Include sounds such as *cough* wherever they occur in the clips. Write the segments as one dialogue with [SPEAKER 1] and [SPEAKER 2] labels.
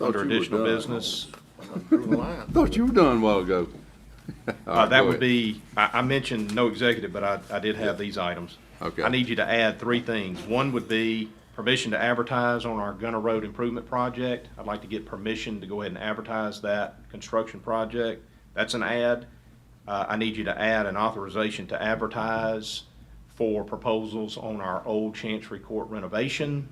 [SPEAKER 1] Under
[SPEAKER 2] you were
[SPEAKER 1] additional
[SPEAKER 2] done. *laughs*
[SPEAKER 1] business,
[SPEAKER 2] Thought you were done a while ago. All
[SPEAKER 1] uh,
[SPEAKER 2] right,
[SPEAKER 1] that
[SPEAKER 2] go
[SPEAKER 1] would
[SPEAKER 2] ahead.
[SPEAKER 1] be, I, I mentioned no executive, but I, I did have these items.
[SPEAKER 2] Okay.
[SPEAKER 1] I need you to add three things. One would be permission to advertise on our Gunner Road Improvement Project. I'd like to get permission to go ahead and advertise that construction project. That's an ad. Uh, I need you to add an authorization to advertise for proposals on our old Chancery Court renovation.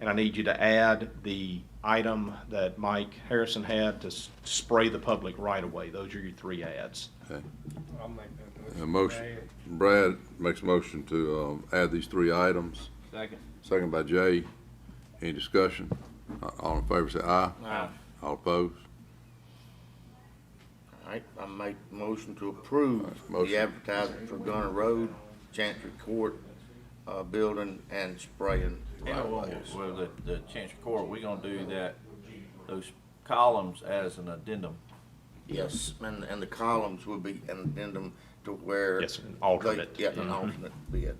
[SPEAKER 1] And I need you to add the item that Mike Harrison had to s- spray the public right away. Those are your three ads.
[SPEAKER 3] I'll make that motion.
[SPEAKER 2] A motion, Brad makes a motion to, um, add these three items.
[SPEAKER 3] Second.
[SPEAKER 2] Second by Jay. Any discussion? A- All in favor, say aye.
[SPEAKER 3] Aye.
[SPEAKER 2] All opposed?
[SPEAKER 4] All right, I make the motion to approve
[SPEAKER 2] motion.
[SPEAKER 4] the advertisement for Gunner Road, Chancery Court, uh, building and spraying. right
[SPEAKER 5] Well,
[SPEAKER 4] away.
[SPEAKER 5] well, the, the Chancery Court, we are gonna do that, those columns as an addendum.
[SPEAKER 4] Yes, and, and the columns will be an addendum to where.
[SPEAKER 1] Yes, an alternate.
[SPEAKER 4] they- Yeah, an alternate bid.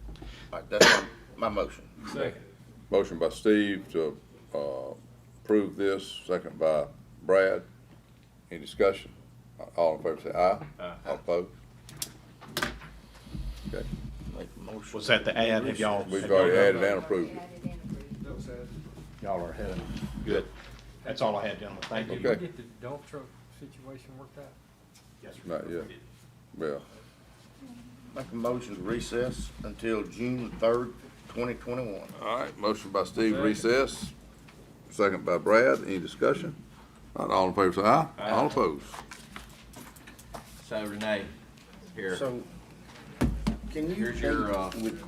[SPEAKER 4] All right, that's my, my motion.
[SPEAKER 3] Second.
[SPEAKER 2] Motion by Steve to, uh, approve this, second by Brad. Any discussion? A- All in favor, say aye. Aye. All opposed? Okay,
[SPEAKER 4] Make the motion.
[SPEAKER 1] Was that the ad? Have y'all?
[SPEAKER 2] we've already added and approved it.
[SPEAKER 1] Y'all are ahead. Good. That's all I had, gentlemen. Thank
[SPEAKER 3] Did
[SPEAKER 1] you.
[SPEAKER 3] we
[SPEAKER 2] Okay.
[SPEAKER 3] get the dump truck situation worked out?
[SPEAKER 1] Yes, sir.
[SPEAKER 2] Not yet. Well,
[SPEAKER 4] Make a motion to recess until June third, twenty twenty-one.
[SPEAKER 2] all right, motion by Steve to recess, second by Brad. Any discussion? Not all in favor, say aye. All opposed?
[SPEAKER 5] So Renee, here.
[SPEAKER 4] So, can you?
[SPEAKER 5] Here's your, uh,
[SPEAKER 4] with-